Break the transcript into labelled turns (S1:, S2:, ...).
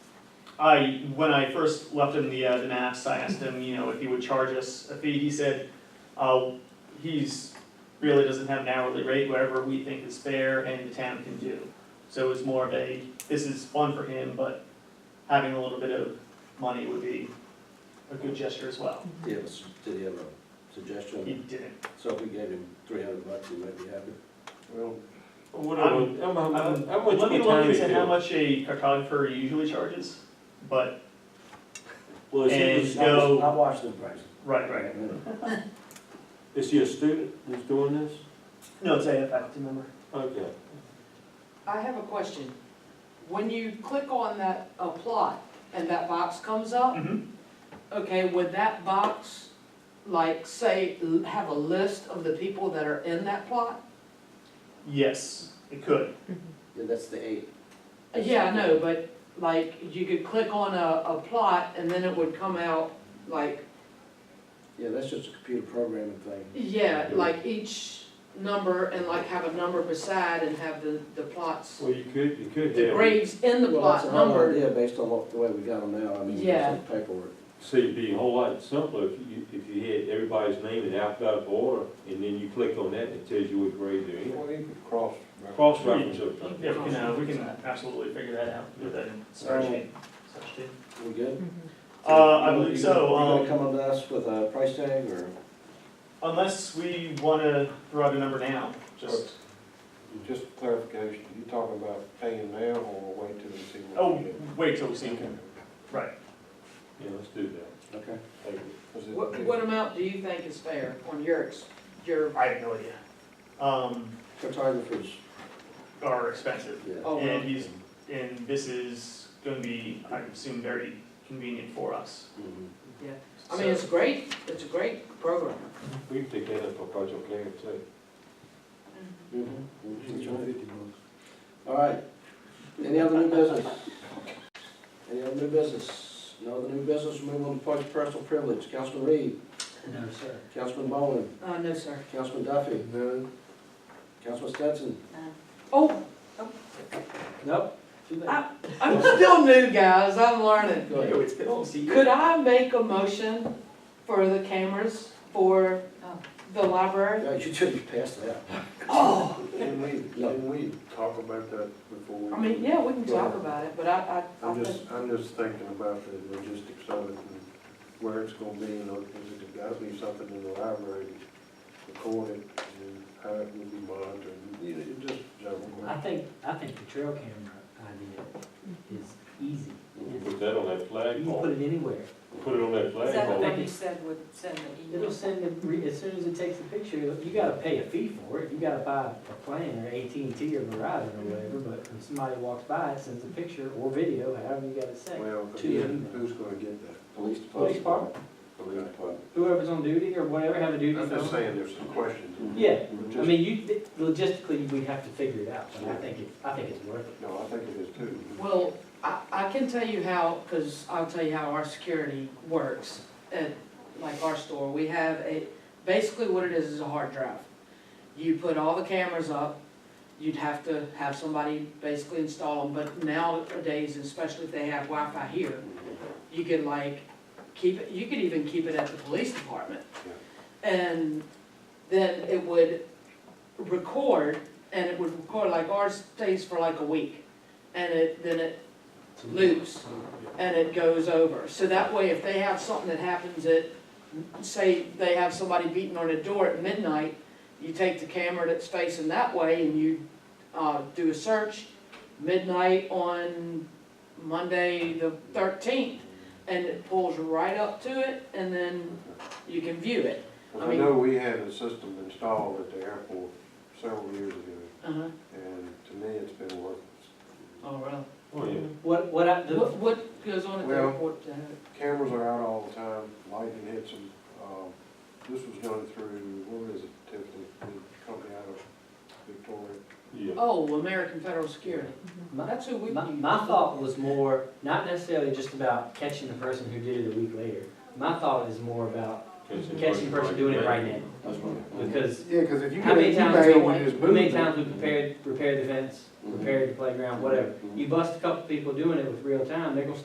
S1: I, when I first left him the, uh, the maps, I asked him, you know, if he would charge us a fee, he said, uh, he's, really doesn't have an hourly rate, whatever we think is fair and the town can do. So it was more of a, this is fun for him, but having a little bit of money would be a good gesture as well.
S2: Do you have a, s- did he have a
S1: He
S2: suggestion?
S1: didn't.
S2: So if we gave him three hundred bucks, he might be happy.
S3: Well,
S1: I'm-
S3: whatever, I'm, I'm,
S1: I'm-
S3: I'm, I'm with
S1: Let me
S3: you,
S1: look
S3: Tommy,
S1: into how
S3: too.
S1: much a cartographer usually charges, but,
S3: Well, is he,
S1: And
S3: is-
S1: no-
S2: I watched the price.
S1: right, right.
S3: is he a student that's doing this?
S1: No, it's a faculty member.
S3: Okay.
S4: I have a question. When you click on that apply and that box comes up,
S1: Mhm.
S4: okay, would that box, like, say, l- have a list of the people that are in that plot?
S1: Yes, it could.
S2: Yeah, that's the eight.
S4: Yeah, I know, but like, you could click on a, a plot and then it would come out like,
S2: Yeah, that's just a computer programming thing.
S4: yeah, like each number and like have a number beside and have the, the plots,
S3: Well, you could, you could
S4: the
S3: have
S4: graves in the
S2: Well, that's
S4: plot
S2: a hard
S4: numbered.
S2: idea based on what, the way we got them now, I mean,
S4: Yeah.
S2: there's some paperwork.
S3: See, it'd be a whole lot simpler if you, if you had everybody's name in alphabetical order, and then you click on that, and it tells you what grade they're in.
S5: Well, you could cross.
S3: Cross-reference everything.
S1: Yeah, we can, uh, we can absolutely figure that out with a spreadsheet. spreadsheet.
S2: We good?
S1: Uh, I
S2: You-
S1: believe
S2: you
S1: so,
S2: gonna-
S1: um,
S2: You gonna come up to us with a price tag, or?
S1: Unless we wanna throw out a number now, just,
S5: Just clarification, you talking about paying now or wait till we see what
S1: oh,
S5: we get?
S1: wait till we see him. Right.
S3: Yeah, let's do
S2: Okay.
S3: that.
S5: Was it-
S4: What, what amount do you think is fair on yours, your,
S1: I have no idea. Um,
S2: Cartographers,
S1: are expensive,
S2: yeah.
S4: oh, well,
S1: and he's, and this is gonna be, I assume, very convenient for us.
S2: Mhm.
S4: I mean, it's great, it's a great program.
S3: We can take that up for Project Clarence, too.
S6: Mm-hmm.
S2: Mhm.
S1: Mm-hmm.
S2: That's right. All right. Any other new business? Any other new business? No other new business, move on to points of personal privilege. Councilman Reed,
S7: No, sir.
S2: Councilman Bowman,
S4: Uh, no, sir.
S2: Councilman Duffy. No. Councilman Stetson.
S6: Uh,
S4: Oh,
S2: Nope. Too late.
S4: I- I'm still new, guys, I'm learning.
S2: Go ahead.
S1: it's been almost a
S4: Could I make a motion for the cameras for
S6: Oh.
S4: the library?
S2: Yeah, you should be past that.
S4: Oh,
S5: Didn't we,
S2: No.
S5: didn't we talk about that before? we-
S4: I mean, yeah, we can talk about it, but I, I, I
S5: I'm
S4: think,
S5: just, I'm just thinking about the logistics of it and where it's gonna be, and is it gotta be something in the library recorded and how it will be monitored, you know, it just,
S7: I think, I think the trail camera idea is easy.
S3: We can put that on that flag
S7: You can
S3: pole.
S7: put it anywhere.
S3: Put it on that
S6: Is
S3: flag
S6: that the
S3: pole.
S6: one you said would send the
S7: It'll
S6: email?
S7: send it, re- as soon as it takes the picture, you gotta pay a fee for it. You gotta buy a plan or AT&T or Verizon or whatever, but when somebody walks by, it sends a picture or video, however you gotta say.
S5: well,
S7: To your email.
S5: who's gonna get that?
S2: Police department.
S7: Police department,
S2: Police department.
S7: whoever's on duty or whatever, have a duty.
S5: I'm just
S7: phone.
S5: saying, there's some questions.
S7: Yeah,
S5: Just-
S7: I mean, you, logistically, we have to figure it out, but I think it, I think it's worth it.
S5: No, I think it is too.
S4: well, I, I can tell you how, because I'll tell you how our security works at, like, our store. We have a, basically what it is, is a hard drive. You put all the cameras up, you'd have to have somebody basically install them, but nowadays, especially if they have Wi-Fi here, you could like, keep it, you could even keep it at the police department. And then it would record, and it would record, like ours stays for like a week, and it, then it loops, and it goes over. So that way, if they have something that happens at, say, they have somebody beating on a door at midnight, you take the camera that's facing that way and you, uh, do a search midnight on Monday the thirteenth, and it pulls right up to it, and then you can view it. I
S5: I
S4: mean-
S5: know we had a system installed at the airport several years ago,
S4: Uh-huh,
S5: and to me, it's been working.
S4: oh, really?
S3: Oh, yeah.
S7: What, what I, the.
S4: What, what goes on at the
S5: Well-
S4: airport to have it?
S5: Cameras are out all the time, lightning hits them. Um, This was done through, what is it, Tiffany, the company out of Victoria?
S3: Yeah.
S4: Oh, American Federal Security,
S7: My,
S4: that's who we.
S7: Mm-hmm. my, my thought was more, not necessarily just about catching the person who did it a week later. My thought is more about catching the person doing it right now,
S2: That's right.
S7: because
S5: Yeah, because if you
S7: how many times, we- how many times we
S2: Mm-hmm.
S7: prepared, repaired the fence, repaired the playground, whatever. You bust a couple people doing it with real time, they're gonna